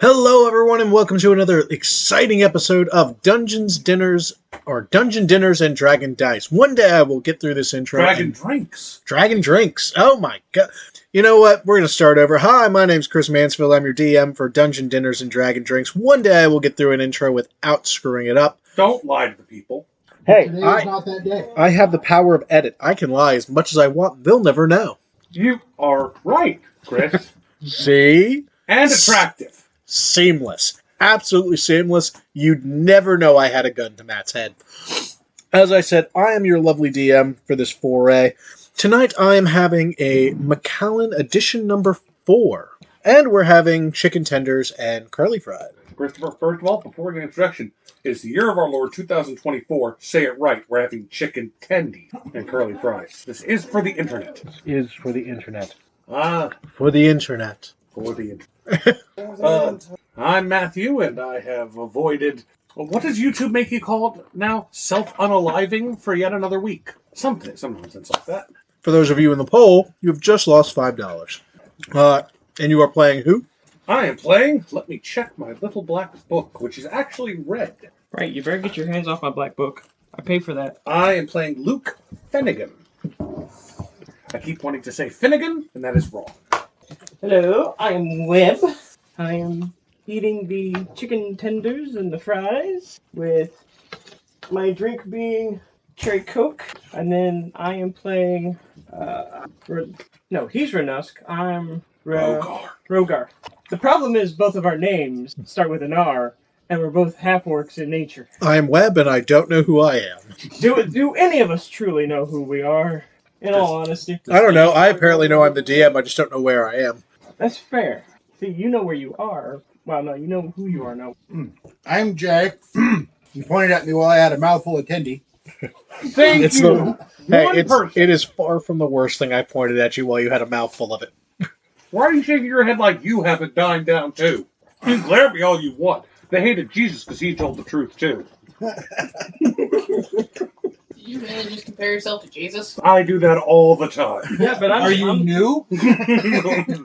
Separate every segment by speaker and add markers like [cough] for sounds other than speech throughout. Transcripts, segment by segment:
Speaker 1: Hello, everyone, and welcome to another exciting episode of Dungeons Dinners or Dungeon Dinners and Dragon Dice. One day I will get through this intro.
Speaker 2: Dragon
Speaker 1: and-
Speaker 2: drinks.
Speaker 1: Dragon drinks. Oh my god! You know what? We're gonna start over. Hi, my name's Chris Mansfield. I'm your DM for Dungeon Dinners and Dragon Drinks. One day I will get through an intro without screwing it up.
Speaker 2: Don't lie to the people.
Speaker 1: Hey,
Speaker 3: Today
Speaker 1: I,
Speaker 3: is not that day.
Speaker 1: I have the power of edit. I can lie as much as I want. They'll never know.
Speaker 2: You are right, Chris.
Speaker 1: See?
Speaker 2: and attractive.
Speaker 1: seamless, absolutely seamless. You'd never know I had a gun to Matt's head. As I said, I am your lovely DM for this foray. Tonight I am having a McAllen edition number four, and we're having chicken tenders and curly fried.
Speaker 2: Christopher, first of all, before we get introduction, it's the year of our Lord 2024. Say it right. We're having chicken tendy and curly fries. This is for the internet.
Speaker 3: Is for the internet.
Speaker 2: Ah,
Speaker 1: For the internet.
Speaker 2: for the internet. Uh, I'm Matthew, and I have avoided. What does YouTube make you call it now? Self unaliving for yet another week. Something, some nonsense like that.
Speaker 1: For those of you in the poll, you have just lost five dollars. Uh, and you are playing who?
Speaker 2: I am playing. Let me check my little black book, which is actually red.
Speaker 4: Right, you better get your hands off my black book. I paid for that.
Speaker 2: I am playing Luke Finnegan. I keep wanting to say Finnegan, and that is wrong.
Speaker 4: Hello, I am Webb. I am eating the chicken tenders and the fries with my drink being cherry coke, and then I am playing. Uh, Ro- no, he's Renusk. I'm
Speaker 1: Uh,
Speaker 4: Ro-
Speaker 2: Rogar.
Speaker 4: Rogar. The problem is both of our names start with an R, and we're both half orcs in nature.
Speaker 1: I am Webb, and I don't know who I am.
Speaker 4: Do do any of us truly know who we are? In all honesty.
Speaker 1: I don't know. I apparently know I'm the DM. I just don't know where I am.
Speaker 4: That's fair. See, you know where you are. Well, no, you know who you are now.
Speaker 3: I'm Jay. you pointed at me while I had a mouthful of tendy.
Speaker 2: Thank
Speaker 1: It's
Speaker 2: you.
Speaker 1: the- Hey,
Speaker 2: One
Speaker 1: it's,
Speaker 2: person.
Speaker 1: it is far from the worst thing I pointed at you while you had a mouthful of it.
Speaker 2: Why are you shaking your head like you have a dime down too? You can glare at me all you want. They hated Jesus because he told the truth too.
Speaker 5: Did you really just compare yourself to Jesus?
Speaker 2: I do that all
Speaker 1: [laughs]
Speaker 2: the time.
Speaker 4: Yeah, but I'm,
Speaker 3: Are you
Speaker 4: I'm-
Speaker 3: new?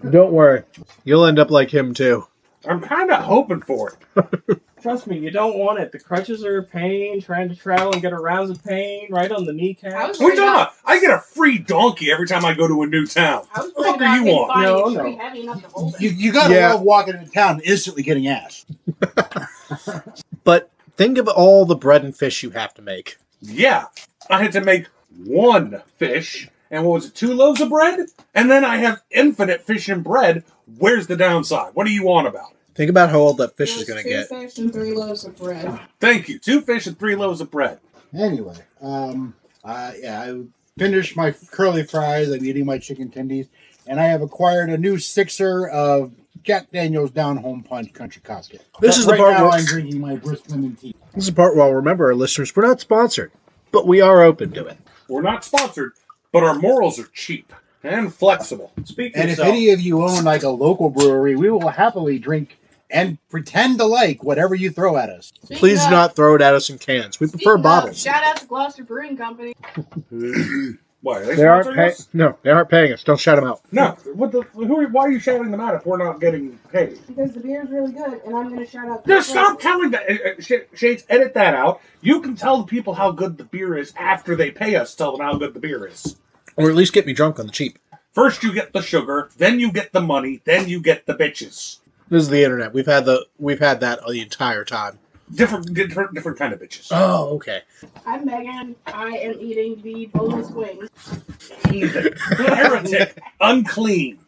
Speaker 1: Don't worry, you'll end up like him too.
Speaker 2: I'm kind of hoping for it.
Speaker 4: trust me, you don't want it. The crutches are a pain. Trying to travel and get around is a pain. Right on the
Speaker 5: I
Speaker 4: kneecap.
Speaker 5: was
Speaker 2: What are you
Speaker 5: worried about-
Speaker 2: talking about? uh, I get a free donkey every time I go to a new town.
Speaker 5: I was
Speaker 2: What the
Speaker 5: worried
Speaker 2: fuck are
Speaker 5: about
Speaker 2: you
Speaker 5: him
Speaker 2: on?
Speaker 5: finding
Speaker 4: No,
Speaker 5: it
Speaker 4: no.
Speaker 5: pretty heavy enough to hold
Speaker 3: You,
Speaker 5: it.
Speaker 3: you gotta
Speaker 1: Yeah.
Speaker 3: love walking into town and instantly getting ass.
Speaker 1: But think of all the bread and fish you have to make.
Speaker 2: Yeah, I had to make one fish, and what was it, two loaves of bread? And then I have infinite fish and bread. Where's the downside? What do you want about it?
Speaker 1: Think about how old that fish
Speaker 5: It
Speaker 1: is
Speaker 5: was
Speaker 1: going to
Speaker 5: two
Speaker 1: get.
Speaker 5: fish and three loaves of bread.
Speaker 2: Thank you. Two fish and three loaves of bread.
Speaker 3: Anyway, um, uh, yeah, I finished my curly fries. I'm eating my chicken tendies, and I have acquired a new sixer of Jack Daniel's Down Home Punch Country Cocktail.
Speaker 1: This
Speaker 3: But
Speaker 1: is the
Speaker 3: right
Speaker 1: part
Speaker 3: now
Speaker 1: where-
Speaker 3: [laughs] I'm drinking my brisk lemon tea.
Speaker 1: This is the part where I'll remember our listeners, we're not sponsored, but we are open to it.
Speaker 2: We're not sponsored, but our morals are cheap and flexible.
Speaker 4: Speak for
Speaker 3: And if
Speaker 4: yourself.
Speaker 3: any of you own like a local brewery, we will happily drink and pretend to like whatever you throw at us.
Speaker 5: Speaking
Speaker 1: Please
Speaker 5: of-
Speaker 1: do not throw it at us in cans. We
Speaker 5: speaking
Speaker 1: prefer
Speaker 5: of,
Speaker 1: bottles.
Speaker 5: shout out to Gloucester Brewing Company.
Speaker 2: Why are they,
Speaker 1: They aren't
Speaker 2: sponsoring
Speaker 1: paying.
Speaker 2: us?
Speaker 1: No, they aren't paying us. Don't shout them out.
Speaker 2: No. What the? Who? Are, why are you shouting them out if we're not getting paid?
Speaker 5: Because the beer is really good, and I'm going to shout out to
Speaker 2: Just stop telling that. uh, uh, Sh- Shades, edit that out. You can tell the people how good the beer is after they pay us. Tell them how good the beer is.
Speaker 1: Or at least get me drunk on the cheap.
Speaker 2: First you get the sugar, then you get the money, then you get the bitches.
Speaker 1: This is the internet. We've had the we've had that the entire time.
Speaker 2: Different, different, different kind of bitches.
Speaker 1: Oh, okay.
Speaker 5: I'm Megan. I am eating the boneless wings,
Speaker 2: Heretic, unclean,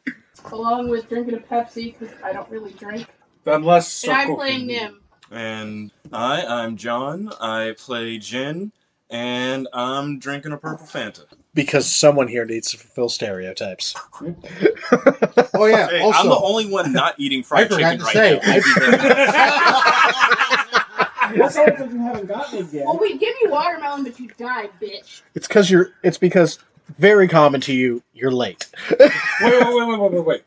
Speaker 5: along with drinking a Pepsi, because I don't really drink.
Speaker 2: unless.
Speaker 5: And I'm
Speaker 2: Circle
Speaker 5: playing
Speaker 2: can be-
Speaker 5: Nim.
Speaker 6: And I, I'm John. I play Jin, and I'm drinking a purple Fanta.
Speaker 1: Because someone here needs to fulfill stereotypes.
Speaker 3: Oh [laughs] yeah.
Speaker 6: Hey, I'm the
Speaker 3: also,
Speaker 6: only one not eating
Speaker 3: [laughs] I
Speaker 6: fried
Speaker 3: forgot
Speaker 6: chicken
Speaker 3: to
Speaker 6: right
Speaker 3: say,
Speaker 6: now. I'll be there.
Speaker 3: [laughs]
Speaker 4: That's all because you haven't gotten it yet.
Speaker 5: Well, we give you watermelon, but you die, bitch.
Speaker 1: It's because you're. It's because very common to you. You're late.
Speaker 2: Wait, wait, wait, wait, wait, wait, wait.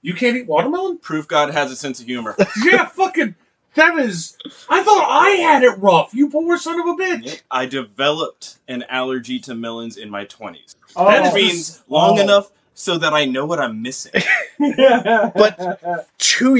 Speaker 2: You can't eat watermelon?
Speaker 6: Proof God has a sense of humor.
Speaker 2: Yeah, fucking. That is. I thought I had it rough. You poor son of a bitch.
Speaker 6: Yep. I developed an allergy to melons in my 20s.
Speaker 4: Oh.
Speaker 6: That means long
Speaker 4: Oh. [laughs]
Speaker 6: enough so that I know what I'm missing.
Speaker 1: But- Two